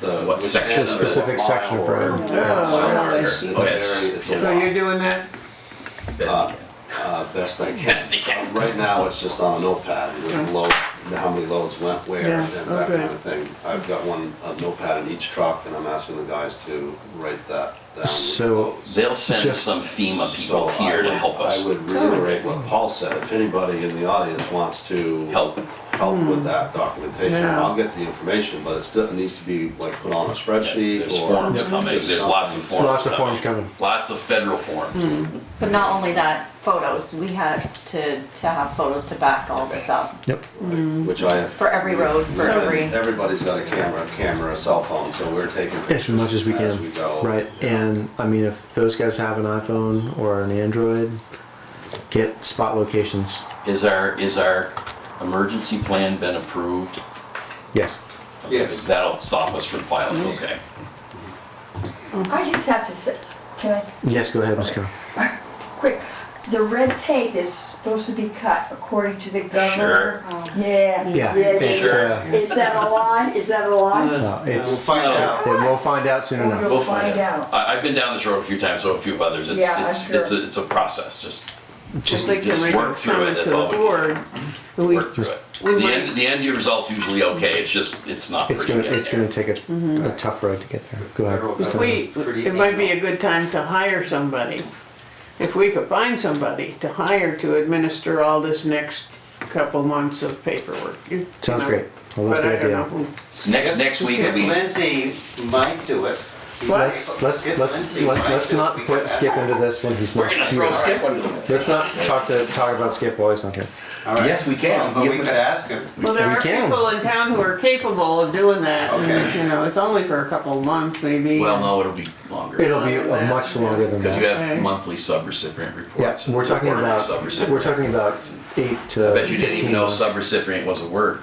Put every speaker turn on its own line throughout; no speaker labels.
the
What
which
section?
end of
Specific
the
section
mile
for
or-
it.
Yeah, it's
Oh, yes.
very- it's a
So
lot.
you're doing that?
Best
Uh, uh, best I can.
Best you can.
Uh, Right now, it's just on a notepad, you know,
Okay.
load, how many loads went where and
Yeah,
that
okay.
kind of thing. I've got one, a notepad in each truck and I'm asking the guys to write that down. with the
So-
loads.
They'll send
Just-
some FEMA
So
people here
I
to
would-
help us
I would reiterate what Paul said, if anybody in the audience wants to.
help.
Help with that documentation,
Hmm. Yeah.
I'll get the information, but it still needs to be like put on a spreadsheet or.
There's forms coming.
just
There's lots of
something.
forms.
Lots of forms coming.
Lots of federal forms.
Hmm.
But not only that, photos, we had to, to have photos to back all this up.
Yep. Mm-hmm.
Which I have.
For every road, for
So
every-
Everybody's got a camera, camera, cell phone, so we're taking.
As
pictures
much as we can.
go.
Right. And I mean, if those guys have an iPhone or an Android, get spot locations.
Is our, is our emergency plan been approved?
Yes.
Okay, Because that'll stop us from
Hmm.
filing, okay.
I just have to say, can I,
Yes, go ahead, Ms. Carroll.
quick, the red tape is supposed to be cut according to the governor. Yeah.
Yeah.
they-
It's, uh,
Is that a lie? Is that a lie?
No,
We'll
uh, it's,
find out.
then we'll find out soon enough.
We'll find out.
I, I've been down this road a few times, so a few others, it's,
Yeah, I'm
it's, it's,
sure.
a- it's a process, just
Just-
They can
just
make a
work through it,
comment
that's
to the
all we can
board. And we-
work through it.
we
The
might-
end, the end year result's usually okay, it's just, it's not
It's
pretty
gonna,
yet.
it's gonna take a, a tough road to get there. Go ahead. Ms. Donovan.
We, it might be a good time to hire somebody. If we could find somebody to hire to administer all this next couple months of paperwork. you
Sounds
know.
great. I love the
But I don't
idea.
know who.
Next, next week will be,
Lindsay might do it.
Let's, let's,
If
let's,
Lindsay
let's,
might
let's
do it,
not
we
put
can
Skip into this when he's
we're
not
gonna
here.
throw Skip under the
Let's not talk to, talk about Skip while he's not here.
All right.
Yes, we can.
But we could ask him.
Well, there
We
are
can.
people in town who are capable of doing that. and,
Okay.
You know, it's only for a couple of months maybe.
Well, no, it'll be longer,
It'll be a much longer than
because you
that.
have
Okay.
monthly subrecipient reports.
Yeah, we're talking
Quarterly
about,
subrecipient.
we're talking about eight
I
to
bet you didn't even
fifteen
know
months.
subrecipient was a word.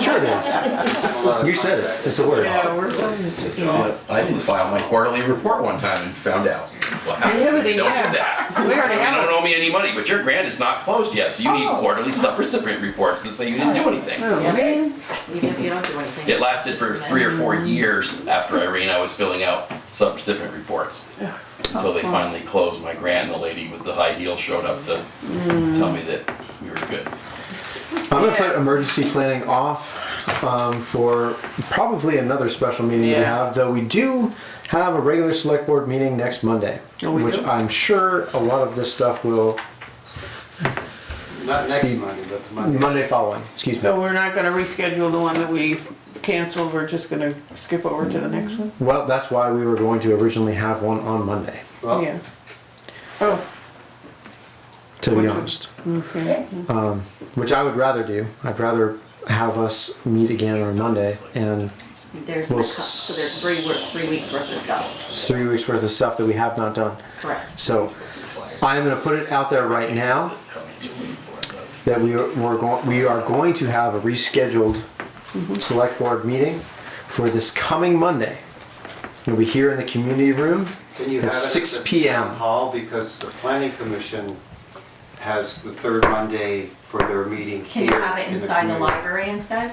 Sure it is. You said it. It's a word.
Yeah, we're done.
Yeah.
I didn't file my quarterly report one time and found out. Wow,
Yeah,
don't do
but they have.
that.
We already
So you
have
don't
it.
owe me any money, but your grant is not closed yet, so you need quarterly subrecipient reports to say you didn't do anything.
Oh, man.
You don't, you don't do anything.
It lasted for three or four years after Irene, I was filling out subrecipient reports. Until
Oh.
they finally closed my grant and the lady with the high heels showed up to tell me that we were good.
I'm gonna
Yeah.
put emergency planning off um, for probably another special meeting we
Yeah.
have, though we do have a regular select board meeting next Monday,
Oh, we
which
do?
I'm sure a lot of this stuff will
Not next Monday, but the Monday.
Monday following. Excuse me.
So we're not gonna reschedule the one that we canceled, we're just gonna skip over to the next one?
Well, that's why we were going to originally have one on Monday.
Well,
Yeah. Oh,
To be
Which would-
honest,
okay.
which I would rather do. I'd rather have us meet again on Monday and
There's,
Well,
my co- so there's three, wor- three weeks worth of stuff,
three weeks worth of stuff that we have not done.
correct.
So I'm going to put it out there right now that we are, we're going, we are going to have a rescheduled select board meeting for this coming Monday. It'll be here in the community room.
Can you
At
have it at
6
the
p.m.
town Hall, because the planning commission has the third Monday for their meeting
Can
here.
you have it
in
inside the
community.
library instead?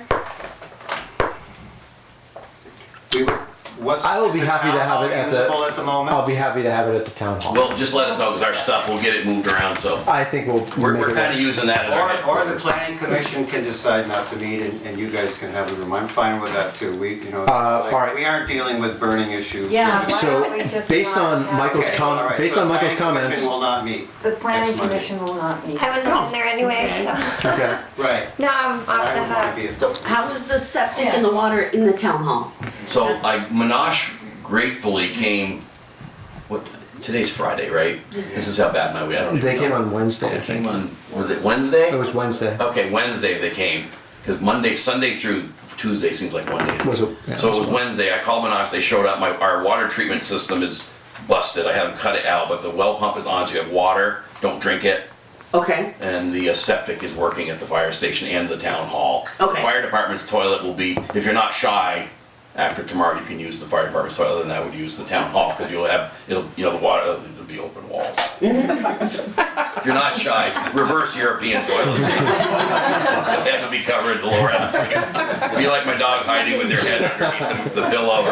We would- What's,
I will
is
be
the
happy to
town
have
hall
it at the-
usable at the moment?
I'll be happy to have it at the town hall.
Well, just let us know, because our stuff, we'll get it moved around, so
I think we'll.
we're,
make
we're
it
kind of
work.
using that as our
Or, or the
headquarters.
planning commission can decide not to meet and, and you guys can have the room. I'm fine with that too. We, you know, it's
Uh, all right.
like, we aren't dealing with burning issues.
Yeah, why
So,
don't we just
based
not
on
have-
Michael's
Okay,
com-
all right,
based
so
on
the
Michael's
planning
comments.
commission will not meet.
The planning
next Monday.
commission will not meet.
I wouldn't have been there anyway, so
Okay.
Right.
now I'm off the
I would
hook.
wanna be at-
So how is the septic and the water in the town hall?
So like Minash gratefully came, what, today's Friday, right? This is how bad my, I don't even know.
They came on Wednesday, I
They came
think.
on, was it Wednesday?
It was Wednesday.
Okay, Wednesday they came, because Monday, Sunday through Tuesday seems like one day. to me.
Was it- yeah,
So
it
it
was
was Wednesday, I called Minox, they showed up, my, our water treatment system is busted, I had them cut it out, but the well pump is on, so you have water, don't drink it.
Okay,
And the uh, septic is working at the fire station and the town hall. The
Okay.
Fire department's toilet will be, if you're not shy, After tomorrow, you can use the fire department's toilet, other than I would use the town hall, because you'll have, it'll, you know, the water, it'll be open walls. You're not shy, it's reverse European toilets. They have to be covered, the lower end. Be like my dog hiding with their head underneath the- the pillow,